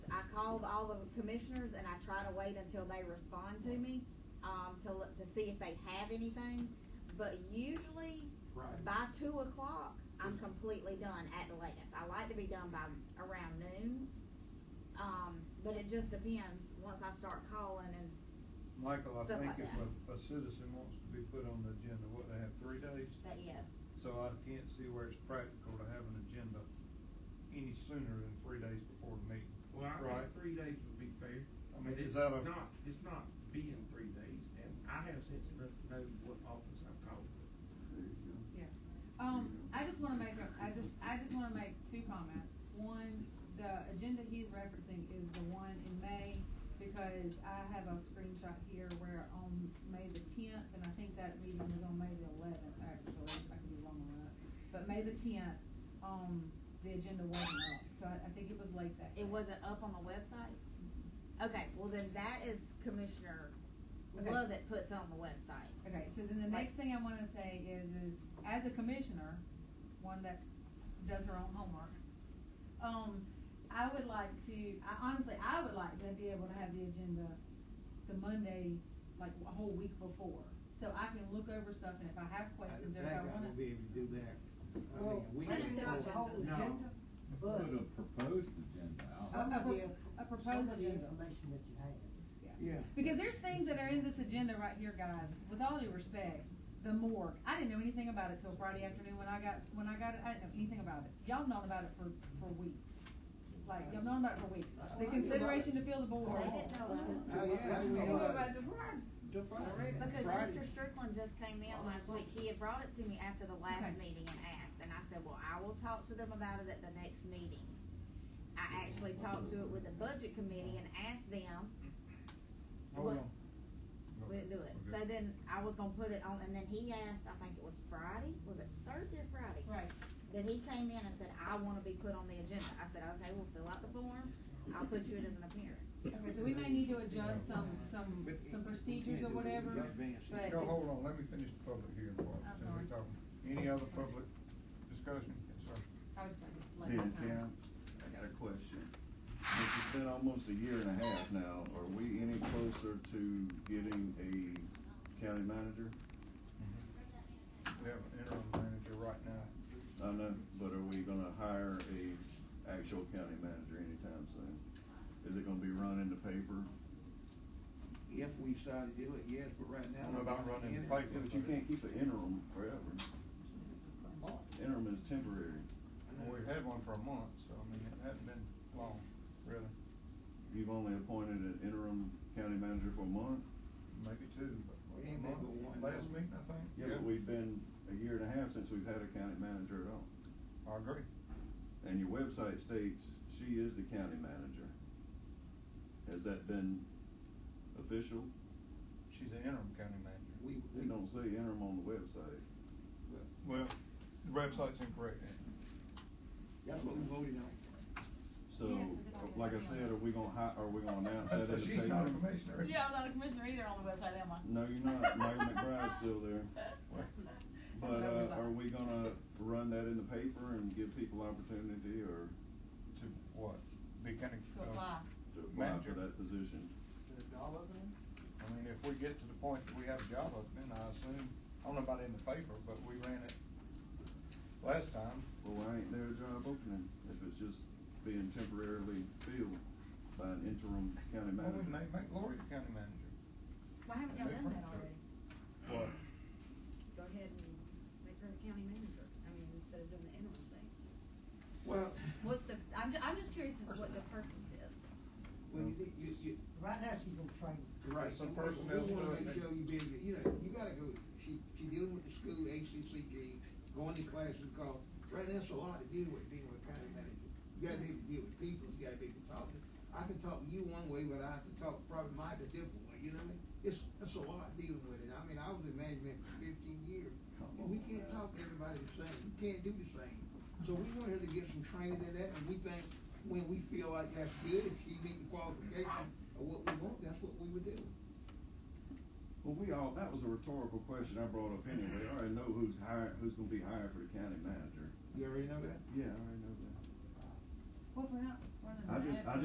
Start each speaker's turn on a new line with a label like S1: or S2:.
S1: called all of the commissioners and I try to wait until they respond to me, um, to, l- to see if they have anything. But usually,
S2: Right.
S1: by two o'clock, I'm completely done at the latest. I like to be done by around noon. Um, but it just depends, once I start calling and,
S3: Michael, I
S1: Stuff
S3: think
S1: like
S3: if
S1: that.
S3: a, a citizen wants to be put on the agenda, what, they have three days?
S1: that, yes.
S3: So I can't see where it's practical to have an agenda any sooner than three days before the meeting.
S2: Well, I
S3: Right.
S2: think three days would be fair.
S3: I mean,
S2: But it's
S3: is that a-
S2: Not, it's not being three days, and I have sense enough to know what office I've called.
S4: Yeah. Um, I just wanna make a, I just, I just wanna make two comments. One, the agenda he's referencing is the one in May, because I have a screenshot here where on May the tenth, and I think that meeting was on May the eleventh, actually, I could be wrong on that. But May the tenth, um, the agenda wasn't up, so I, I think it was late that day.
S1: It wasn't up on the website? Okay, well then that is Commissioner
S4: Okay.
S1: Lovett puts on the website.
S4: Okay, so then the next thing I wanna say is, is as a commissioner, one that does her own homework, um, I would like to, I honestly, I would like to be able to have the agenda the Monday, like a whole week before. So I can look over stuff and if I have questions or if I
S5: I
S4: wanna.
S5: will be able to
S6: Oh,
S5: do that. I
S6: Well,
S5: mean, we
S6: Send
S5: can
S6: us
S5: pull
S6: the
S5: a whole
S6: agenda.
S5: agenda,
S6: Put
S5: but,
S6: a proposed agenda out.
S5: Some
S4: a
S5: of
S4: pro-
S5: the-
S4: a proposed
S6: some
S5: of the
S4: agenda.
S6: information that you have.
S5: yeah.
S4: Because there's things that are in this agenda right here, guys. With all due respect, the morgue. I didn't know anything about it till Friday afternoon when I got when I got it. I didn't know anything about it. Y'all known about it for for weeks. Like y'all known about it for weeks. The consideration to fill the
S6: Oh,
S4: board.
S1: They didn't know that.
S5: How- how do we
S6: What
S5: know that?
S6: about the
S5: Define.
S1: Because
S5: Friday.
S1: Mr. Strickland just came in last week, he had brought it to me after the
S4: Okay.
S1: last meeting and asked, and I said, well, I will talk to them about it at the next meeting. I actually talked to it with the budget committee and asked them,
S3: Hold
S1: What-
S3: on.
S1: we didn't do it, so
S3: Oh, Okay.
S1: then I was gonna put it on, and then he asked, I think it was Friday, was it Thursday or Friday?
S4: Right.
S1: Then he came in and said, I wanna be put on the agenda, I said, okay, we'll fill out the form, I'll put you in as an appearance.
S4: Okay, so we may need to adjust some some
S5: But it-
S4: some
S5: we
S4: procedures
S5: can't
S4: or
S5: do it in
S4: whatever.
S5: advance.
S4: But
S3: No, hold on, let me finish the public hearing part,
S4: I'm
S3: since we're
S4: sorry.
S3: talking. Any other public discussion? Yes, sir.
S4: I was trying to let
S7: Hey,
S4: you know.
S7: Karen, I got a question. It's been almost a year and a half now. Are we any closer to getting a county manager?
S3: Mm-hmm. We have an interim manager right now.
S7: I know, but are we gonna hire a actual county manager anytime soon? Is it gonna be run in the paper?
S5: If we decide to do it, yes, but right
S3: I
S5: now.
S3: don't know about running
S5: in it.
S3: pipe.
S7: But you can't keep an interim forever. Interim is temporary.
S3: Well, We've had one for a month, so I mean, it hasn't been long, really,
S7: You've only appointed an interim county manager for a month?
S3: maybe two, but
S5: We
S3: a
S5: ain't
S3: month,
S5: been one.
S3: last meeting, I think.
S7: Yeah, but we've been a year and a half since we've had a county manager at all.
S3: I agree.
S7: And your website states she is the county manager. Has that been official?
S3: She's an interim county manager.
S5: We, we.
S7: It don't say interim on the website.
S5: well,
S3: Well, the website's incorrect.
S5: That's what we voted on.
S7: So, uh,
S4: Yeah, 'cause it don't
S7: like I
S4: have to be
S7: said,
S4: on.
S7: are we gonna hi, are we gonna announce that in the
S3: So
S7: paper?
S3: she's not a commissioner.
S4: Yeah, I'm not a commissioner either on the website, am I?
S7: No, you're not. Mayor McBride's still there. But,
S4: That's
S7: uh,
S4: oversight.
S7: are we gonna run that in the paper and give people opportunity or
S3: To what? Be county. uh,
S4: To apply.
S7: to apply for
S3: Manager.
S7: that position?
S5: all of them?
S3: I mean, if we get to the point that we have a job opening, I assume, I don't know about in the paper, but we ran it last time.
S7: Well, why ain't there a job opening if it's just being temporarily filled by an interim
S3: Well,
S7: county manager?
S3: we may make Lori the county manager.
S4: Why haven't y'all done that already?
S3: What?
S6: Go ahead and make her the county manager, I mean, instead of doing the interim thing.
S5: Well,
S6: What's the, I'm, ju- I'm just curious as to what the purpose is.
S5: well, you, you, you,
S6: Right now, she's in training.
S5: Right,
S3: Some
S5: some
S3: person
S5: person
S3: else
S5: We wanna
S3: does
S5: make
S3: it.
S5: sure you be, able to- you know, you gotta go, she, she dealing with the school, ACCG, going to classes, call, right, that's a lot to deal with, being with county manager. You gotta be able to deal with people, you gotta be able to talk to, I can talk to you one way, but I have to talk probably Mike a different way, you know what I mean? It's, it's a lot dealing with it, I mean, I was in management for fifteen years, and we can't talk to everybody the same, you can't do the same. So we wanted to get some training in that, and we think, when we feel like that's good, if she meet the qualification of what we want, that's what we would do.
S7: Well, we all, that was a rhetorical question I brought up anyway. I already know who's hired, who's gonna be hired for the county manager.
S5: You already know that?
S7: Yeah, I already know that.
S4: Well, if we're not running.
S7: I just-
S4: that-
S7: I